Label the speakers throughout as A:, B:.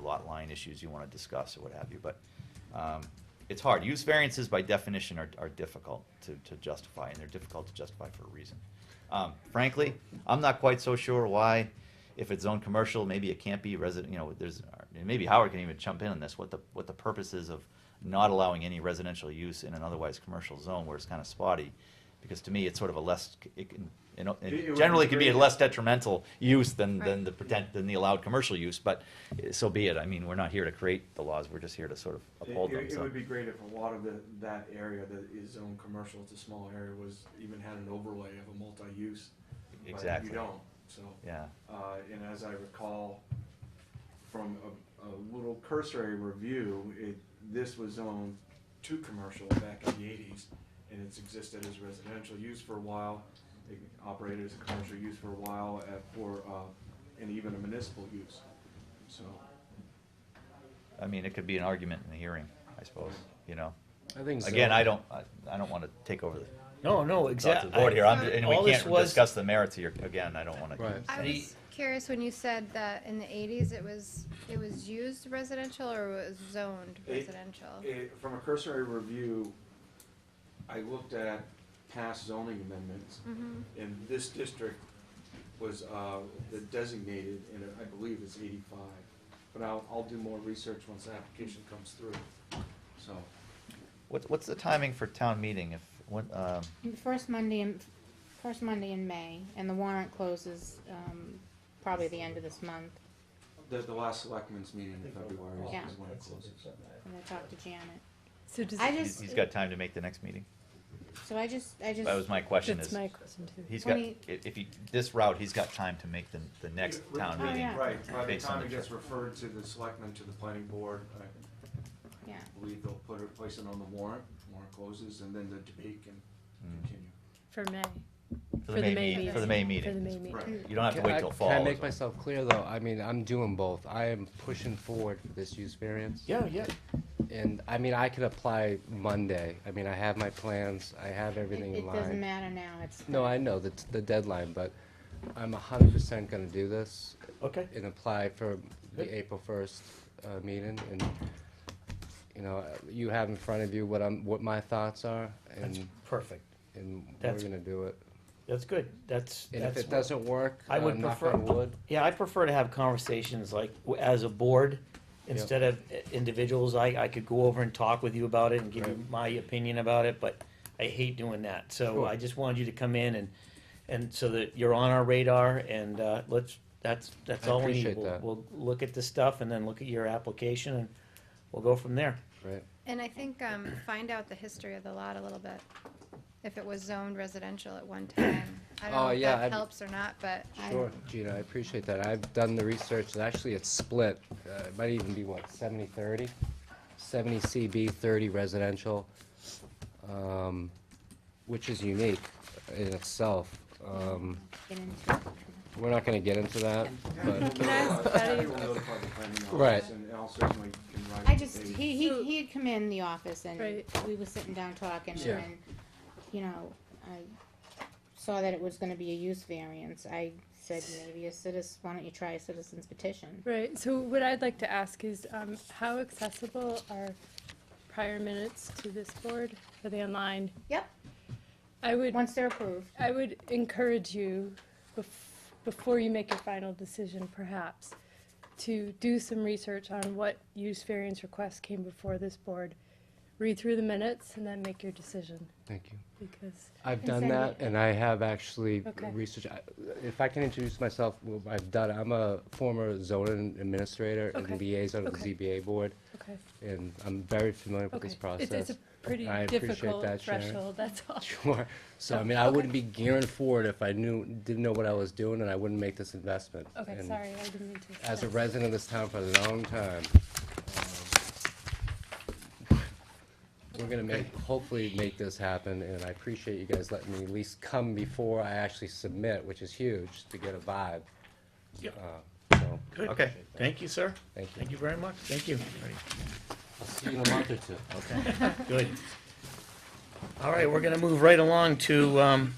A: lot line issues you want to discuss or what have you, but um, it's hard. Use variances by definition are, are difficult to, to justify, and they're difficult to justify for a reason. Um, Frankly, I'm not quite so sure why, if it's zone commercial, maybe it can't be resident, you know, there's, and maybe Howard can even jump in on this, what the, what the purpose is of not allowing any residential use in an otherwise commercial zone where it's kind of spotty. Because to me, it's sort of a less, it can, you know,
B: It- it
A: it
B: would
A: generally
B: be
A: can be a
B: great.
A: less detrimental use than, than
C: Right.
A: the pretend, than the allowed commercial use, but eh, so be it. I mean, we're not here to create the laws, we're just here to sort of
B: It,
A: uphold them,
B: it- it
A: so.
B: would be great if a lot of the, that area that is zone commercial, it's a small area, was, even had an overlay of a multi-use. But
A: Exactly.
B: you don't, so,
A: Yeah,
B: uh, and as I recall, from a, a little cursory review, it, this was zoned to commercial back in the eighties, and it's existed as residential use for a while, it operated as a commercial use for a while, at, for, uh, and even a municipal use, so.
A: I mean, it could be an argument in the hearing, I suppose, you know?
D: I think so.
A: Again, I don't, I, I don't want to take over the
D: No, no,
A: thoughts
D: exactly.
A: of the board here, I'm, and we
D: All this
A: can't
D: was-
A: discuss the merits here, again, I don't want
D: Right.
A: to.
C: I
D: The-
C: was curious when you said that in the eighties it was, it was used residential or was zoned
B: It-
C: residential?
B: It- From a cursory review, I looked at past zoning amendments,
C: Mhm.
B: and this district was uh, the designated, and I believe it's eighty-five. But I'll, I'll do more research once the application comes through, so.
A: What's, what's the timing for town meeting if, when, um,
E: The First Monday in, first Monday in May, and the warrant closes, um, probably the end of this month,
B: The, the last selectmen's meeting in February
E: Yeah.
B: is when it closes.
E: and I talked to Janet.
F: So does
E: I
F: it-
A: he's
E: just-
A: he's got time to make the next meeting?
E: So I just, I just.
A: That was my question
F: that's
A: is,
F: my question too.
A: he's got,
E: Twenty-
A: if if he, this route, he's got time to make the, the next town
E: Oh,
A: meeting.
E: yeah.
B: Right, by the
A: based on
B: time
A: the
B: it gets
A: trip.
B: referred to the selectmen, to the planning board, I
E: Yeah,
B: believe they'll put it, place it on the warrant, warrant closes, and then the debate can
A: Mm.
B: continue.
F: For May.
A: For the May, meet-
F: meeting.
A: for the May
F: For the
A: meeting.
F: May meeting.
B: Right.
A: You don't have to
D: Can
A: wait
D: I-
A: till fall.
D: Can I
A: is
D: make
A: all.
D: myself clear, though? I mean, I'm doing both. I am pushing forward for this use variance.
A: Yeah, yeah.
D: And, I mean, I could apply Monday. I mean, I have my plans, I have
E: it,
D: everything in
E: it doesn't
D: line.
E: matter now, it's.
D: No, I know, the, the deadline, but I'm a hundred percent gonna do this
A: Okay.
D: and apply for the April first, uh, meeting and, you know, you have in front of you what I'm, what my thoughts are
G: That's
D: and,
G: perfect.
D: and we're
G: That's-
D: gonna do it.
G: That's good. That's,
D: And if
G: that's,
D: it doesn't work,
G: I
D: uh,
G: would
D: knock
G: prefer-
D: on wood.
G: yeah, I prefer to have conversations like w- as a board
D: Yeah.
G: instead of i- individuals. I, I could go over and talk with you about it and give you
D: Right.
G: my opinion about it, but I hate doing that. So
D: Sure.
G: I just wanted you to come in and, and so that you're on our radar and, uh, let's, that's, that's
D: I
G: all we need.
D: appreciate
G: We'll,
D: that.
G: we'll look at the stuff and then look at your application and we'll go from there.
D: Right.
C: And I think, um, find out the history of the lot a little bit, if it was zoned residential at one time. I don't
D: Oh,
C: know if
D: yeah,
C: that
D: I'd-
C: helps or not, but I.
D: Sure, Gina, I appreciate that. I've done the research, and actually it's split. Uh, It might even be, what, 70 30? 70 CB, 30 residential, um, which is unique in itself. Um,
E: Get into it.
D: We're not gonna get into that, but,
B: I will notify the planning office,
D: Right.
B: and I'll certainly can write
E: I
B: it
E: just,
B: today.
E: he, he,
F: So-
E: he had come in the office and
F: Right.
E: we were sitting down talking
D: Yeah.
E: and, you know, I saw that it was gonna be a use variance. I said, maybe a citizen, why don't you try a citizen's petition?
F: Right, so what I'd like to ask is, um, how accessible are prior minutes to this board? Are they online?
E: Yep,
F: I would,
E: once they're approved.
F: I would encourage you, bef- before you make your final decision perhaps, to do some research on what use variance requests came before this board. Read through the minutes and then make your decision,
D: thank you.
F: because
D: I've
E: And
D: done
E: send
D: that,
E: it.
D: and I have actually
F: Okay.
D: researched, I- if I can introduce myself, well, I've done, I'm a former zoning administrator
F: Okay.
D: and liaison of
F: Okay.
D: the ZBA board,
F: Okay.
D: and I'm very familiar with
F: Okay.
D: this
F: It's-
D: process.
F: It's a pretty
D: I appreciate
F: difficult
D: that, Sharon.
F: threshold, that's all.
D: Sure. So I mean, I wouldn't be gearing forward if I knew, didn't know what I was doing, and I wouldn't make this investment.
F: Okay,
D: And
F: sorry, I didn't mean to.
D: As a
F: That's-
D: resident of this town for a long time, um, we're gonna make, hopefully make this happen, and I appreciate you guys letting me at least come before I actually submit, which is huge, to get a vibe.
G: Yep.
D: Uh, So,
A: Okay.
G: Thank you, sir.
D: thank you.
G: Thank you very much. Thank you.
D: I'll see you in a month or two.
G: Okay, good. All right, we're gonna move right along to, um,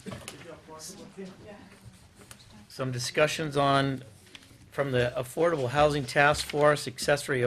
G: some discussions on from the Affordable Housing Task Force, accessory